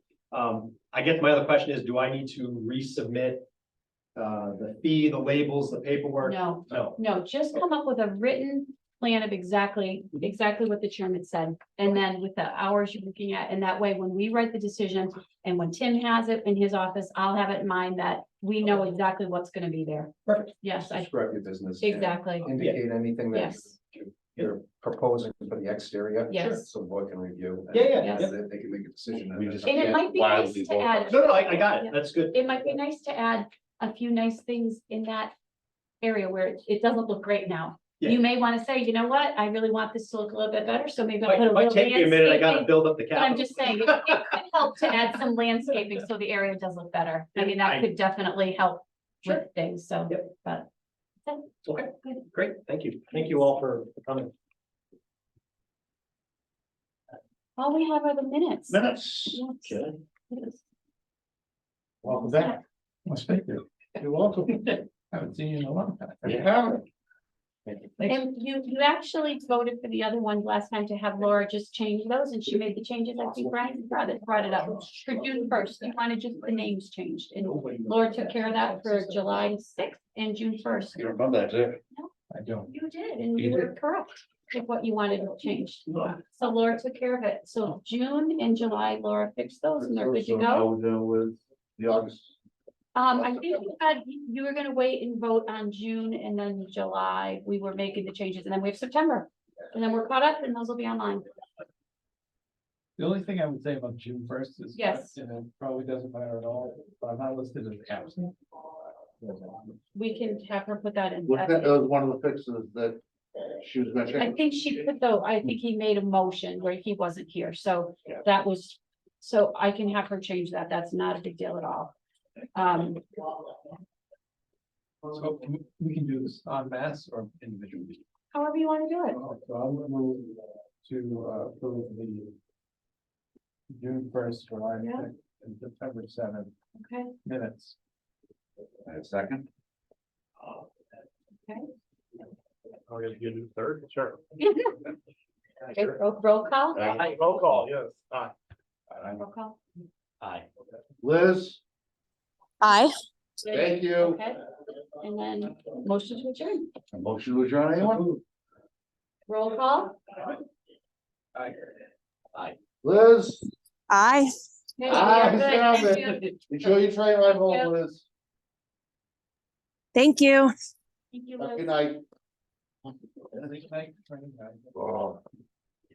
Um, I guess my other question is, do I need to resubmit? Uh, the fee, the labels, the paperwork? No, No, no, just come up with a written plan of exactly, exactly what the chairman said. And then with the hours you're looking at, and that way, when we write the decision, and when Tim has it in his office, I'll have it in mind that we know exactly what's gonna be there. Perfect. Yes, I, Describe your business. and exactly, Indicate anything that yes, you're proposing for the exterior. Yes. So the board can review. and- Yeah, yeah, Yes. And then they can make a decision. We just And it can't might be wildly nice to vote on add- it. no, no, I, I got Yeah. it, that's good. it might be nice to add a few nice things in that area where it- it doesn't look great now. Yeah. You may wanna say, you know what, I really want this to look a little bit better, so maybe I'll Might, put a might little take me a minute, I gotta landscaping. build up the But I'm capital. just saying, it it could help to add some landscaping so the area does look better. I mean, I- that could definitely help with things, so. Yep. But. Okay, great, thank you, thank you all for for coming. All we have are the minutes. Minutes. Yes. Okay. Yes. Welcome back. Well, thank you. You're welcome. Haven't seen you in a long time. Yeah. And you, you actually voted for the other one last time to have Laura just change those and she made the changes. I think Brian brought it, brought it up. For June first, you wanted just the names changed and Laura took care of that for July sixth and June first. You remember that, do No. I don't. You did, and You you were correct with what you wanted changed. No. So Laura took care of it. Oh. So June and July, Laura fixed those and they're good to go. With the August. Um, I think you had, you were gonna wait and vote on June and then July, we were making the changes, and then we have September. And then we're caught up and those will be online. The only thing I would say about June first is. Yes. And it probably doesn't matter at all, but I'm not listed as absent. We can have her put that in. Was that, that was one of the fixes that she was gonna I check? think she put though, I think he made a motion where he wasn't here, so that was, so I can have her change that, that's not a big deal at all. Um, So can- we can do this en masse or individually. however you wanna do it. So I'm gonna move to uh, approve the. June first, July Yeah. sixth, and September seventh Okay, minutes. A second? Oh, you you do third, sure. Okay, roll, roll call? Aye, roll call, yes, aye. Roll call. Aye. Liz, Aye. thank you. Okay, and then motion to adjourn, Motion to adjourn, anyone? roll call? Liz, Aye. Okay, Ah, you're stop good. Thank it. you. you sure you train right Yeah. home, Liz? Thank you. Thank you, Have a Liz. Good Uh, night. I think I- Oh,